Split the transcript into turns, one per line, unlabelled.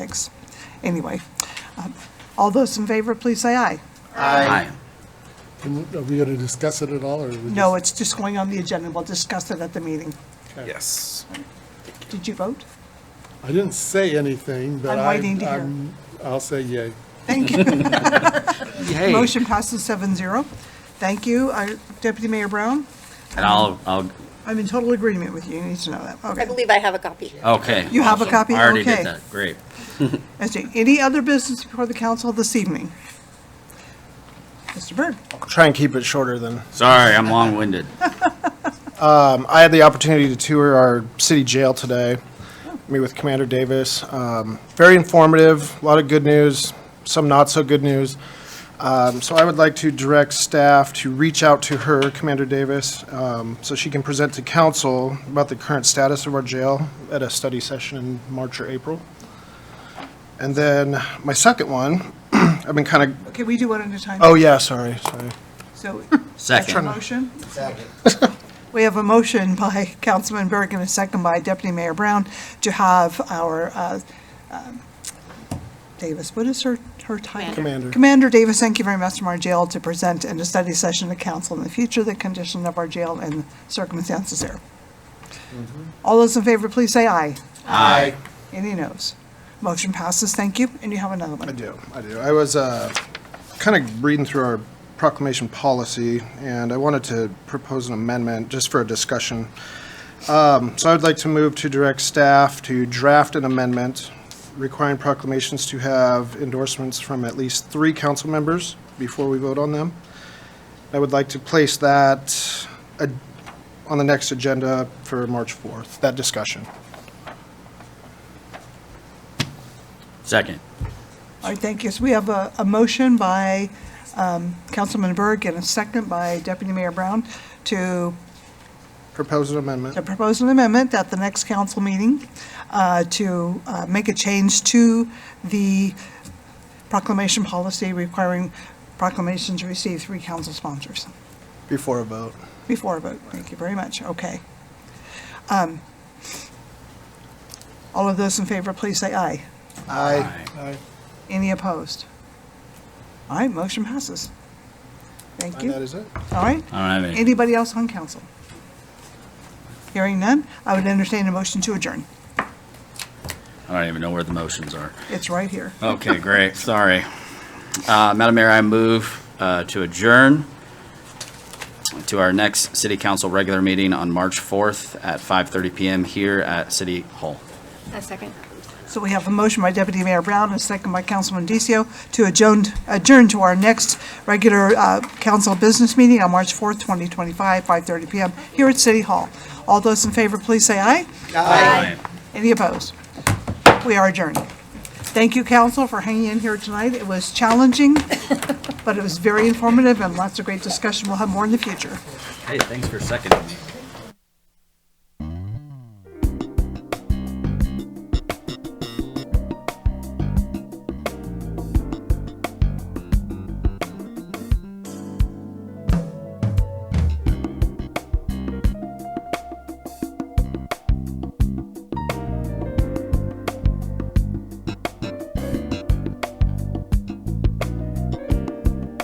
Thanks. Anyway, um, all those in favor, please say aye.
Aye.
Can- Are we going to discuss it at all, or? we just-
No, it's just going on the agenda. We'll discuss it at the meeting.
Yes.
Did you vote?
I didn't say anything, but
I'm
I,
waiting to hear.
I'm, I'll say yay.
Thank you.
Yay.
Motion passes seven zero. Thank you. Uh, Deputy Mayor Brown,
And I'll, I'll,
I'm in total agreement with you. You need to know that.
I
Okay.
believe I have a copy.
okay.
You have a
awesome.
copy?
I already
Okay.
did that, great.
As to Any other business before the council this evening? Mr. Byrd?
try and keep it shorter then.
Sorry, I'm long-winded.
Um, I had the opportunity to tour our city jail today, meet with Commander Davis. Um, very informative, a lot of good news, some not so good news. Um, so I would like to direct staff to reach out to her, Commander Davis, um, so she can present to council about the current status of our jail at a study session in March or April. And then my second one, I've been kind of,
Okay, we do one at a time.
oh yeah, sorry, sorry.
So, a
Second,
motion? We have a motion by Councilman Berg and a second by Deputy Mayor Brown to have our, uh, um, Davis, what is her, her title?
Commander.
Commander Davis, thank you very much from our jail to present in a study session to council in the future, the condition of our jail and circumstances there. All those in favor, please say aye.
aye.
Any noes? Motion passes, thank you, and you have another one.
I do, I do. I was uh, kind of reading through our proclamation policy, and I wanted to propose an amendment just for a discussion. Um, So I would like to move to direct staff to draft an amendment requiring proclamations to have endorsements from at least three council members before we vote on them. I would like to place that uh, on the next agenda for March 4th, that discussion.
Second,
All right, thank you. So we have a, a motion by um, Councilman Berg and a second by Deputy Mayor Brown to
Propose an amendment.
to propose an amendment at the next council meeting uh, to uh, make a change to the proclamation policy requiring proclamations receive three council sponsors
Before a vote.
before a vote. Thank you very much. Okay. Um, All of those in favor, please say aye.
Aye.
Any opposed? All right, motion passes. Thank
And that
you.
is it.
All right.
I don't have any.
Anybody else on council? Hearing none, I would entertain a motion to adjourn.
I don't even know where the motions are.
It's right here.
Okay, great, sorry. Uh, Madam Mayor, I move uh, to adjourn to our next city council regular meeting on March 4th at 5:30 PM here at City Hall.
A second.
So we have a motion by Deputy Mayor Brown and a second by Councilman Decio to adjourn, adjourn to our next regular uh, council business meeting on March 4th, 2025, 5:30 PM here at City Hall. All those in favor, please say aye.
Aye.
Any opposed? We are adjourned. Thank you, council, for hanging in here tonight. It was challenging, but it was very informative and lots of great discussion. We'll have more in the future.
Hey, thanks for seconding me.